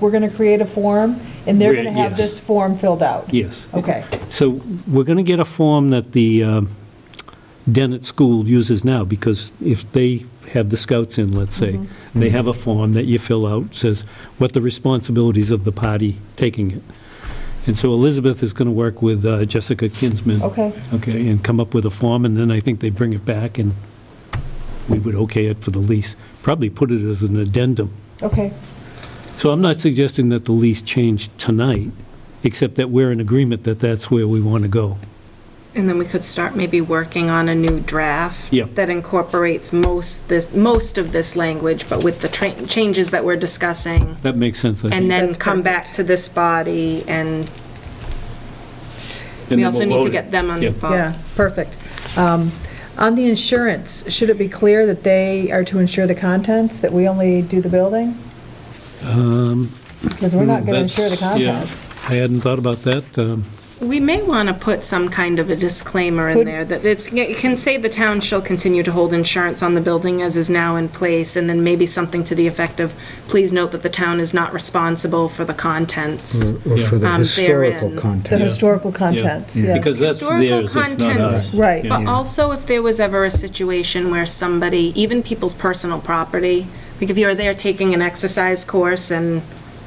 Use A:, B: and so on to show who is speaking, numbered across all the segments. A: we're going to create a form, and they're going to
B: We're-
A: have
B: yes.
A: this form filled out?
B: Yes.
A: Okay,
B: So we're going to get a form that the um, Dennett School uses now, because if they have the scouts in, let's say, they have a form that you fill out, says what the responsibilities of the party taking it. And so Elizabeth is going to work with uh, Jessica Kinsman.
A: Okay.
B: Okay, and come up with a form, and then I think they bring it back, and we would okay it for the lease. Probably put it as an addendum.
A: okay,
B: So I'm not suggesting that the lease change tonight, except that we're in agreement that that's where we want to go.
C: And then we could start maybe working on a new draft.
B: Yeah.
C: That incorporates most, this, most of this language, but with the tra- changes that we're discussing.
B: That makes sense, I
C: And
B: think.
C: then
A: That's
C: come back to this body and we also need to get them on the
B: Yeah.
C: phone.
A: yeah, perfect. Um, On the insurance, should it be clear that they are to insure the contents, that we only do the building? Because we're not going to insure the
B: Um, Hmm, That's- yeah.
A: contents.
B: I hadn't thought about that. um,
C: We may want to put some kind of a disclaimer in
A: Could-
C: there that it's, it can say the town shall continue to hold insurance on the building as is now in place, and then maybe something to the effect of, please note that the town is not responsible for the
B: Mm-hmm.
C: contents.
D: Or for the
C: Um,
D: historical
C: therein.
A: The
D: content.
A: historical contents,
B: yeah. Mm.
A: yes.
B: Because that's
C: Historical
B: theirs, it's not
C: contents,
B: ours.
A: Right.
B: Yeah.
C: But also, if there was ever a situation where somebody, even people's personal property, like if you're there taking an exercise course and,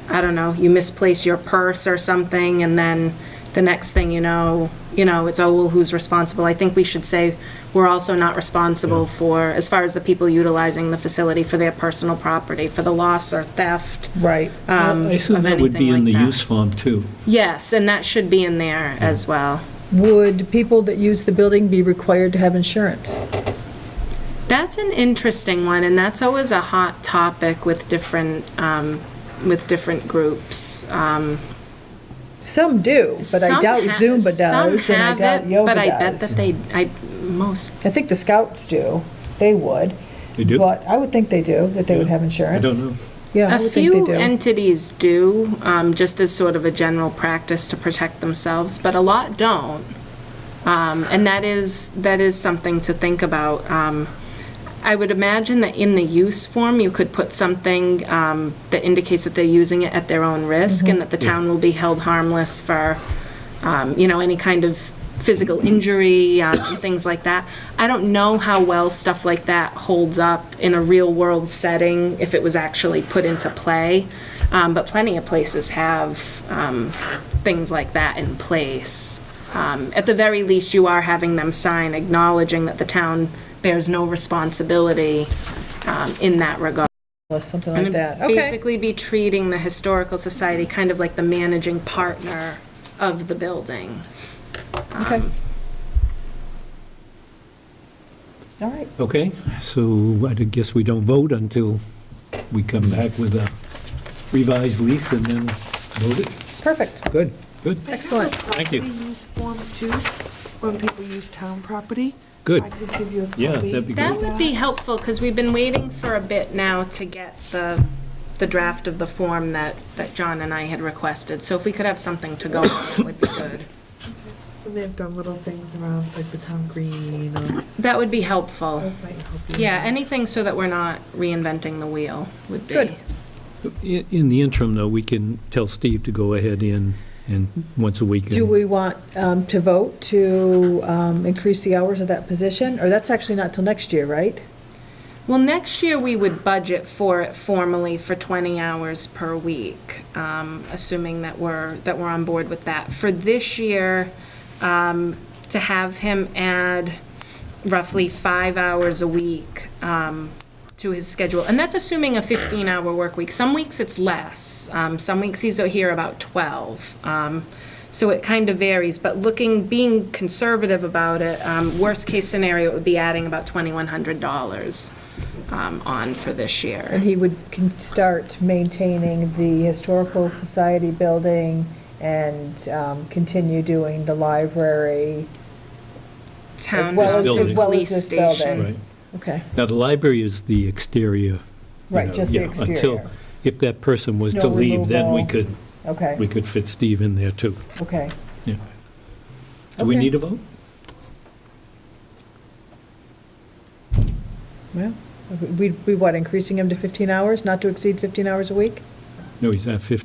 C: I don't know, you misplace your purse or something, and then the next thing you know, you know, it's, oh, well, who's responsible? I think we should say, we're also not responsible for, as far as the people utilizing the facility for their personal property, for the loss or theft.
A: Right.
C: um,
B: I assume
C: of
B: that would be
C: anything
B: in the
C: like that.
B: use form, too.
C: Yes, and that should be in there as well.
A: Would people that use the building be required to have insurance?
C: That's an interesting one, and that's always a hot topic with different, um, with different groups. Um,
A: Some do, but I
C: some
A: doubt
C: ha-
A: Zumba does,
C: some
A: and I
C: have
A: doubt
C: it,
A: yoga
C: But I bet that
A: does.
C: they, I, most,
A: I think the scouts do, they would.
B: They do?
A: But I would think they do, that they would have
B: I
A: insurance.
B: don't know.
A: Yeah, I
C: a
A: would think they
C: few
A: do.
C: entities do, um, just as sort of a general practice to protect themselves, but a lot don't. Um, and that is, that is something to think about. Um, I would imagine that in the use form, you could put something um, that indicates that they're using it at their own risk and that the town will be held harmless for, um, you know, any kind of physical injury, um, and things like that. I don't know how well stuff like that holds up in a real-world setting, if it was actually put into play, Um, but plenty of places have um, things like that in place. Um, At the very least, you are having them sign acknowledging that the town bears no responsibility um, in that regard.
A: Something like that, okay.
C: Basically be treating the Historical Society kind of like the managing partner of the building.
A: okay. All right,
B: Okay, so I guess we don't vote until we come back with a revised lease and then vote it.
A: perfect,
D: Good.
B: Good,
A: excellent.
B: Thank you.
E: Property use form two, when people use town property.
B: good.
E: I could give you a copy.
B: Yeah, that'd be
C: That
B: great.
C: would be helpful, because we've been waiting for a bit now to get the, the draft of the form that, that John and I had requested. So if we could have something to go on, it would be good.
E: And they've done little things around, like the town green, or
C: That would be helpful.
E: that might help you.
C: Yeah, anything so that we're not reinventing the wheel would be.
A: Good.
B: In in the interim, though, we can tell Steve to go ahead in, and once a week.
A: Do
B: and-
A: we want um, to vote to um, increase the hours of that position? Or that's actually not till next year, right?
C: Well, next year, we would budget for it formally for 20 hours per week, um, assuming that we're, that we're on board with that. For this year, um, to have him add roughly five hours a week um, to his schedule, and that's assuming a 15-hour work week. Some weeks it's less, Um, some weeks he's here about 12. Um, So it kind of varies, but looking, being conservative about it, um, worst-case scenario, it would be adding about $2,100 um, on for
A: And
C: this year.
A: he would can start maintaining the Historical Society building and um, continue doing the library.
C: Town
A: well
B: as
C: versus
B: this building.
C: police
A: As well as this
C: station.
A: building.
B: Right.
A: Okay,
B: Now, the library is the exterior. you
A: Right,
B: know,
A: just the
B: yeah, Until,
A: exterior.
B: if that person was to
A: Snow
B: leave, then we
A: removal.
B: could, we
A: okay,
B: could fit Steve in there, too.
A: okay.
B: Yeah. Do we
A: Okay.
B: need a vote?
A: Well, we, we what, increasing him to 15 hours, not to exceed 15 hours a week?
B: No, he's at 50.